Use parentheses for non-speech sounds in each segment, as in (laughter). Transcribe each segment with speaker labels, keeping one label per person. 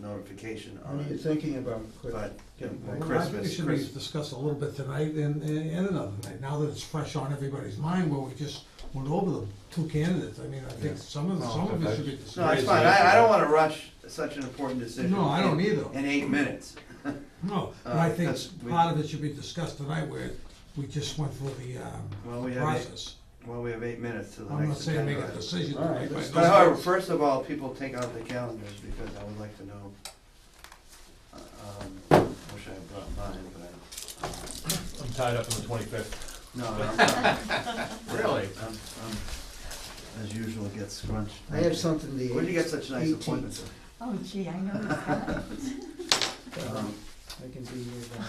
Speaker 1: notification
Speaker 2: What
Speaker 1: on
Speaker 2: are you
Speaker 1: it,
Speaker 2: thinking about? Chris?
Speaker 1: but, you know,
Speaker 2: Well,
Speaker 1: by
Speaker 2: I think
Speaker 3: Well, I think it
Speaker 1: Christmas,
Speaker 3: should be
Speaker 1: Christmas.
Speaker 3: discussed a little bit tonight and, and and another night, now that it's fresh on everybody's mind, where we just went over the two candidates, I mean, I think
Speaker 1: Yeah. Oh,
Speaker 3: some of,
Speaker 4: Well,
Speaker 3: some of it
Speaker 4: okay.
Speaker 3: should be
Speaker 1: No, it's
Speaker 3: discussed.
Speaker 1: fine, I, I don't wanna rush such an important decision.
Speaker 3: No, I don't
Speaker 1: in-
Speaker 3: either.
Speaker 1: In eight minutes.
Speaker 3: No, but I
Speaker 1: Uh,
Speaker 3: think
Speaker 1: that's- we-
Speaker 3: part of it should be discussed tonight, where we just went through the,
Speaker 1: Well,
Speaker 3: um,
Speaker 1: we have eight-
Speaker 3: process.
Speaker 1: Well, we have eight minutes to the
Speaker 3: I'm not
Speaker 1: next
Speaker 3: saying
Speaker 1: agenda.
Speaker 3: make a
Speaker 1: item.
Speaker 3: decision
Speaker 2: All right,
Speaker 3: tonight,
Speaker 2: let's-
Speaker 3: but
Speaker 1: But however, first of all, people take out the calendars because I would like to know. uh, um, I wish I had brought mine, but
Speaker 4: I'm tied up on the twenty-fifth.
Speaker 1: I don't. No, I'm not. Really? I'm, I'm, as usual, get scrunched.
Speaker 2: I have something the
Speaker 1: Where'd you get such nice
Speaker 2: 18th.
Speaker 1: appointments?
Speaker 5: Oh gee, I know he's
Speaker 1: (laughs)
Speaker 5: got it.
Speaker 1: Um,
Speaker 2: I can be here uh, then.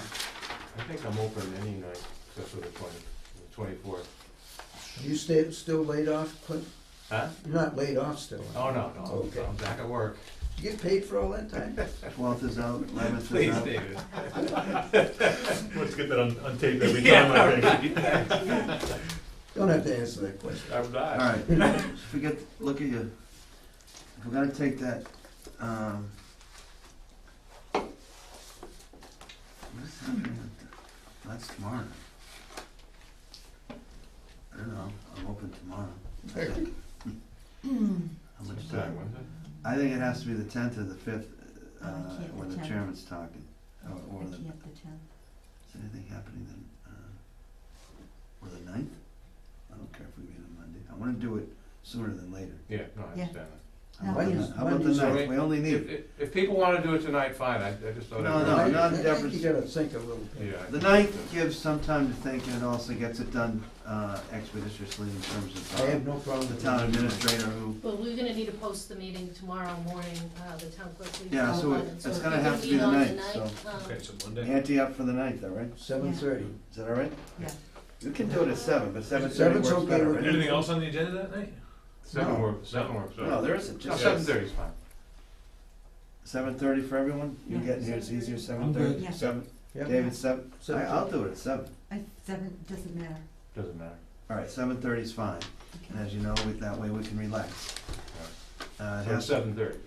Speaker 4: I think I'm open any night except for the twenty, the twenty-fourth.
Speaker 2: You stay, still laid off, Clint?
Speaker 4: Huh?
Speaker 2: You're not laid off still?
Speaker 4: Oh, no, no,
Speaker 2: Okay.
Speaker 4: I'm- I'm back at work.
Speaker 2: You get paid for all that time?
Speaker 1: Twelfth is out, eleventh is
Speaker 4: (laughs) Please,
Speaker 1: out.
Speaker 4: David. (laughs) Let's get that on, on tape every time, I
Speaker 2: Don't have to answer that
Speaker 1: (laughs)
Speaker 2: question.
Speaker 4: (laughs) I'm
Speaker 1: All
Speaker 4: not.
Speaker 1: right, forget, look at you. If We're gonna take that, um. what's happening with the- oh, That's tomorrow. I don't know, I'm open tomorrow. How much
Speaker 4: Which time, was it?
Speaker 1: I think it has to be the tenth or the fifth,
Speaker 5: Oh, I
Speaker 1: uh,
Speaker 5: can't,
Speaker 1: when
Speaker 5: the
Speaker 1: the
Speaker 5: 10th.
Speaker 1: chairman's talking,
Speaker 5: I
Speaker 1: or, or the,
Speaker 5: can't the tenth.
Speaker 1: is anything happening then, uh, or the ninth? I don't care if we meet on Monday, I wanna do it sooner than later.
Speaker 4: Yeah, no, I
Speaker 5: Yeah.
Speaker 4: understand that.
Speaker 1: How about
Speaker 2: Monday's-
Speaker 1: the- how about the
Speaker 2: Monday's
Speaker 1: ninth?
Speaker 4: alright.
Speaker 1: We only
Speaker 4: If,
Speaker 1: need,
Speaker 4: if, if people wanna do it tonight, fine, I, I just thought.
Speaker 1: No,
Speaker 4: I'd-
Speaker 1: no, no.
Speaker 2: I think
Speaker 1: Deborah's-
Speaker 2: you gotta think a little bit.
Speaker 4: Yeah. I-
Speaker 1: the ninth gives some time to think and it also gets it done uh, expeditiously in terms of
Speaker 2: I have
Speaker 1: uh,
Speaker 2: no problem
Speaker 1: the
Speaker 2: with
Speaker 1: town
Speaker 2: that.
Speaker 1: administrator who,
Speaker 6: Well, we're gonna need to post the meeting tomorrow morning, uh, the town clerk. will be
Speaker 1: Yeah, so
Speaker 6: online,
Speaker 1: it- it's gonna have to be the ninth,
Speaker 6: so. if you
Speaker 4: Okay,
Speaker 6: can
Speaker 4: so Monday.
Speaker 1: ante up for the ninth, all right?
Speaker 2: Seven thirty.
Speaker 1: Is that all right?
Speaker 5: Yeah.
Speaker 1: You can do it at seven, but seven thirty
Speaker 2: Seven's
Speaker 1: works
Speaker 2: okay
Speaker 1: better,
Speaker 2: with
Speaker 1: right?
Speaker 2: me. Anything
Speaker 4: else on the agenda that night? Seven
Speaker 1: No.
Speaker 4: works, seven works.
Speaker 1: No, there isn't, just
Speaker 4: Seven thirty is fine.
Speaker 1: seven thirty for everyone? You're
Speaker 5: Yeah.
Speaker 1: getting here, it's easier, seven
Speaker 3: good.
Speaker 1: thirty?
Speaker 5: Yeah.
Speaker 1: Seven,
Speaker 2: Yep,
Speaker 1: David, seven, I-
Speaker 2: Seven
Speaker 1: I'll do it at seven.
Speaker 5: I, seven, doesn't matter.
Speaker 4: Doesn't matter.
Speaker 1: All right, seven thirty is fine, and
Speaker 5: Okay.
Speaker 1: as you know, we- that way we can relax. Uh, It
Speaker 4: So
Speaker 1: has to-
Speaker 4: seven thirty, you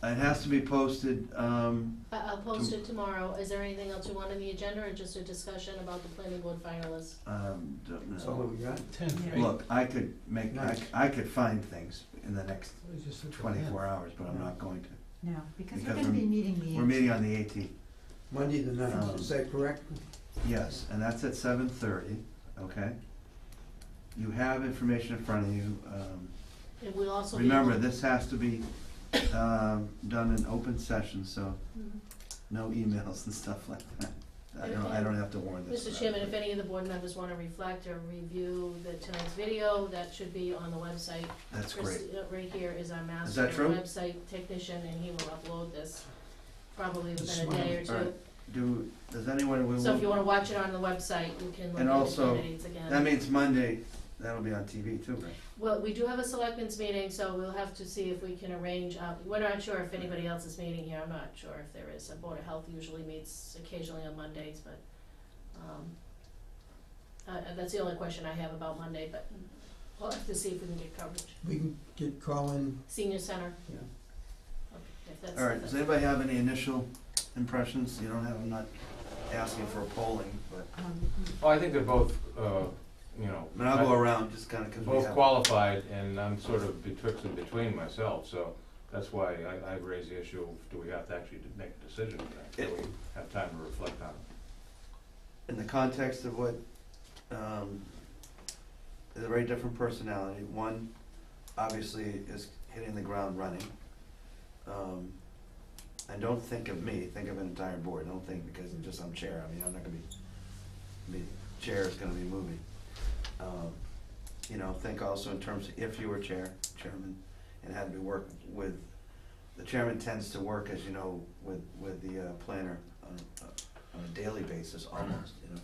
Speaker 4: said?
Speaker 1: it has to be posted, um,
Speaker 6: I, I'll post it tomorrow. Is there anything else you want on the agenda or just a discussion about the planning board finalists?
Speaker 1: um, don't
Speaker 2: that's
Speaker 1: know.
Speaker 2: all we got.
Speaker 5: Yeah.
Speaker 1: Look, I could make, I,
Speaker 2: Nice.
Speaker 1: I could find things in the next twenty-four hours, but I'm not going to.
Speaker 5: No, because we're
Speaker 1: Because
Speaker 5: gonna be
Speaker 1: we're-
Speaker 5: meeting the.
Speaker 1: We're meeting on the eighteenth,
Speaker 2: Monday the
Speaker 1: Um,
Speaker 2: ninth, is that correct?
Speaker 1: yes, and that's at seven thirty, okay? You have information in front of you, um,
Speaker 6: It will also be.
Speaker 1: remember, this has to be, um, done in open session, so
Speaker 6: Mhm.
Speaker 1: no emails (laughs) and stuff like that. I don't, I don't have to warn this.
Speaker 6: Mr. Chairman, if any of the board members wanna reflect or review the tonight's video, that should be on the website.
Speaker 1: That's
Speaker 6: Chris,
Speaker 1: great,
Speaker 6: uh, Right here is our master.
Speaker 1: that true?
Speaker 6: Website technician, and he will upload this probably
Speaker 2: This
Speaker 6: within a day or
Speaker 1: All
Speaker 6: two.
Speaker 1: right. do, does anyone, we
Speaker 6: So if you
Speaker 1: will,
Speaker 6: wanna watch it on the website, you can look
Speaker 1: And
Speaker 6: at the
Speaker 1: also,
Speaker 6: candidates again.
Speaker 1: that means Monday, that'll be on TV too, right?
Speaker 6: Well, we do have a selectmen's meeting, so we'll have to see if we can arrange, uh, we're not sure if anybody else is meeting here, I'm not sure if there is. A Board of Health usually meets occasionally on Mondays, but, um, uh, uh, that's the only question I have about Monday, but we'll have to see if we can get coverage.
Speaker 2: We can get, call in,
Speaker 6: Senior Center,
Speaker 2: yeah.
Speaker 6: okay, if that's.
Speaker 1: All right, does anybody have any initial impressions? You don't have, I'm not asking for a polling, but,
Speaker 5: Um,
Speaker 4: Well, I think they're both, uh, you know.
Speaker 1: I mean, I'll go around just kind of because we
Speaker 4: both
Speaker 1: have.
Speaker 4: qualified, and I'm sort of betwixt and between myself, so that's why I, I raised the issue of, do we have to actually make a decision tonight? Do we have time to reflect on it?
Speaker 1: In the context of what, um, is a very different personality. One, obviously, is hitting the ground running. Um, and don't think of me, think of an entire board. Don't think because just I'm chair. I mean, I'm not gonna be, be, chair is gonna be moving. Um, you know, think also in terms of if you were chair, chairman, and had to be work with, the chairman tends to work, as you know, with, with the uh, planner on, a- on a daily basis, almost, you know.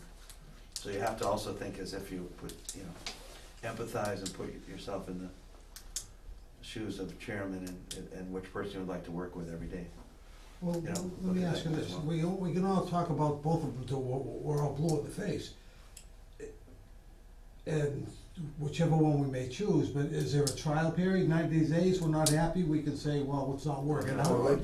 Speaker 1: So you have to also think as if you would, you know, empathize and put yourself in the shoes of the chairman and, and which person you would like to work with every day.
Speaker 3: Well,
Speaker 1: Yeah,
Speaker 3: let
Speaker 1: look
Speaker 3: me
Speaker 1: at
Speaker 3: ask
Speaker 1: that
Speaker 3: you
Speaker 1: as
Speaker 3: this,
Speaker 1: well.
Speaker 3: we, we can all talk about both of them till we're, we're all blue in the face. And whichever one we may choose, but is there a trial period, ninety days, we're not happy, we can say, well, it's not working
Speaker 2: Well,
Speaker 3: out.
Speaker 2: like